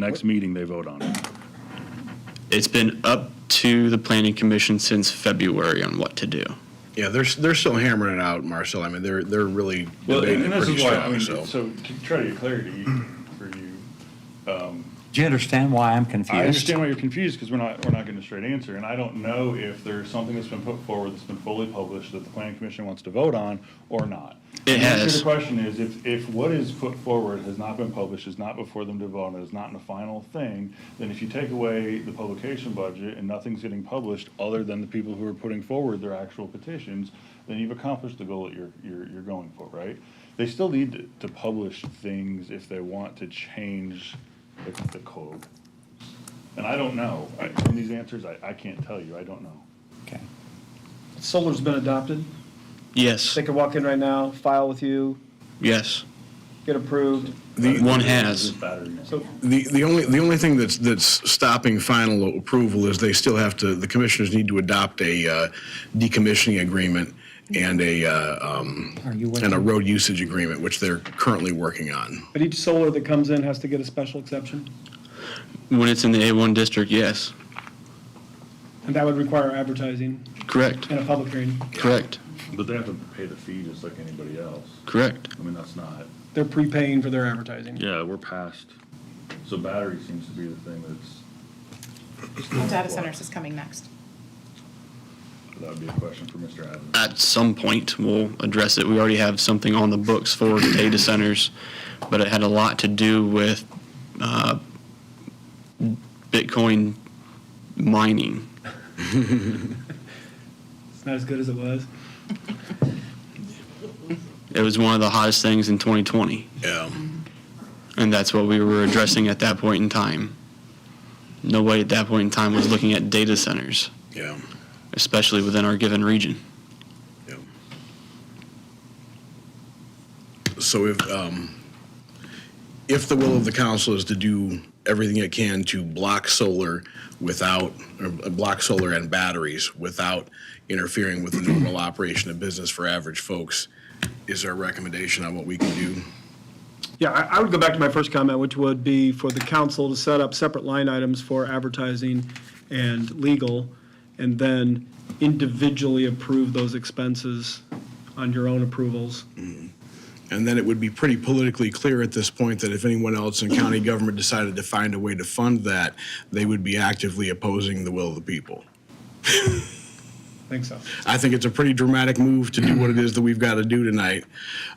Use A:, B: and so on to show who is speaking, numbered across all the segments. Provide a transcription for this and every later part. A: Next meeting, they vote on it.
B: It's been up to the planning commission since February on what to do.
C: Yeah, they're, they're still hammering it out, Marcel. I mean, they're, they're really
A: Well,
C: debating
A: and
C: it
A: this
C: pretty
A: is why, I
C: strong,
A: mean, uh,
C: so.
A: so to try to get clarity for you,
D: Do you understand why I'm confused?
A: I understand why you're confused, because we're not, we're not getting a straight answer, and I don't know if there's something that's been put forward that's been fully published that the planning commission wants to vote on or not.
B: It
A: The answer to
B: has.
A: The question is, if, if what is put forward has not been published, is not before them to vote, on, is not in a final thing, then if you take away the publication budget and nothing's getting published, other than the people who are putting forward their actual petitions, then you've accomplished the goal that you're, you're, you're going for, right? They still need to- to publish things if they want to change the, the code. And I don't know. I- From these answers, I, I can't tell you. I don't know.
D: Okay.
E: Solar's been adopted.
B: Yes,
E: They could walk in right now, file with you,
B: yes.
E: get approved.
A: uh,
C: The-
B: One has.
A: Battery.
E: So
C: The, the only, the only thing that's, that's stopping final approval is they still have to, the commissioners need to adopt a uh, decommissioning agreement and a, uh, um,
D: Are you
C: and a
D: waiting?
C: road usage agreement, which they're currently working on.
E: But each solar that comes in has to get a special exception,
B: When it's in the A1 district, yes.
E: and that would require advertising
B: Correct,
E: and a public hearing.
B: correct,
A: But they have to pay the fee just like anybody else.
B: correct.
A: I mean, that's not.
E: They're prepaying for their advertising.
A: Yeah, we're past. So battery seems to be the thing that's,
F: Well, Data centers is coming next.
A: that would be a question for Mr. Adams.
B: At some point, we'll address it. We already have something on the books for data centers, but it had a lot to do with uh, Bitcoin mining.
E: It's not as good as it was.
B: It was one of the hottest things in 2020,
C: Yeah.
B: and that's what we were addressing at that point in time. Nobody at that point in time was looking at data centers,
C: Yeah.
B: especially within our given region.
C: Yeah. So if, um, if the will of the council is to do everything it can to block solar without, or block solar and batteries without interfering with the normal operation of business for average folks, is there a recommendation on what we can do?
E: Yeah, I, I would go back to my first comment, which would be for the council to set up separate line items for advertising and legal, and then individually approve those expenses on your own approvals.
C: And then it would be pretty politically clear at this point that if anyone else in county government decided to find a way to fund that, they would be actively opposing the will of the people.
E: Think so.
C: I think it's a pretty dramatic move to do what it is that we've got to do tonight,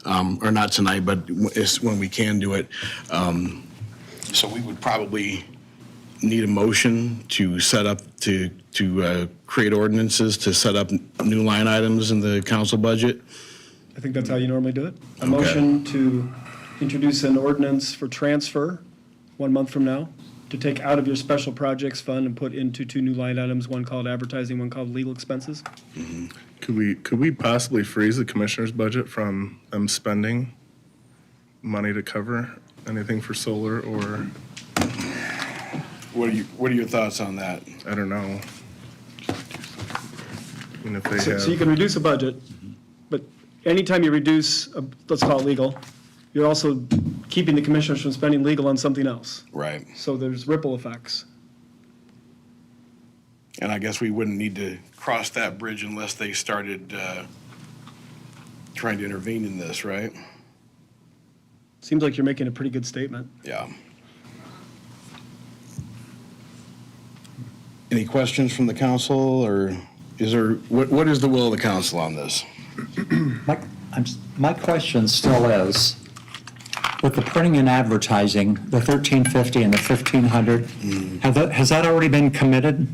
C: um, or not tonight, but w- it's when we can do it. Um, So we would probably need a motion to set up, to, to uh, create ordinances, to set up n- new line items in the council budget.
E: I think that's how you normally do it. A
C: Okay.
E: motion to introduce an ordinance for transfer one month from now, to take out of your special projects fund and put into two new line items, one called advertising, one called legal expenses.
G: Could we, could we possibly freeze the commissioner's budget from them spending money to cover anything for solar or,
C: What are you, what are your thoughts on that?
G: I don't know? And if they
E: So so you
G: have, Mm-hmm.
E: can reduce a budget, but anytime you reduce, a- let's call it legal, you're also keeping the commissioners from spending legal on something else.
C: Right.
E: So there's ripple effects.
C: And I guess we wouldn't need to cross that bridge unless they started uh, trying to intervene in this, right?
E: Seems like you're making a pretty good statement.
C: Yeah. Any questions from the council, or is there, what, what is the will of the council on this?
D: My, I'm, s- my question still is, with the printing and advertising, the thirteen fifty and the fifteen hundred,
A: Mm.
D: have that, has that already been committed?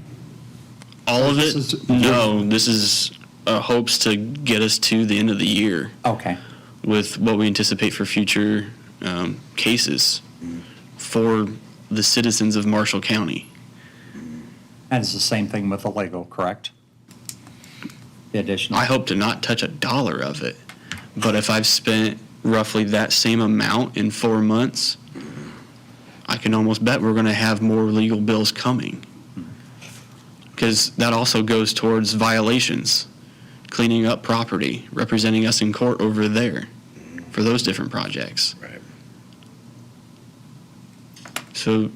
B: All of
D: This
B: it?
D: is-
B: No, this is uh, hopes to get us to the end of the year
D: Okay,
B: with what we anticipate for future um, cases for the citizens of Marshall County.
D: and it's the same thing with the legal, correct? The additional,
B: I hope to not touch a dollar of it, but if I've spent roughly that same amount in four months, I can almost bet we're going to have more legal bills coming. Because that also goes towards violations, cleaning up property, representing us in court over there for those different projects.
C: Right.
B: So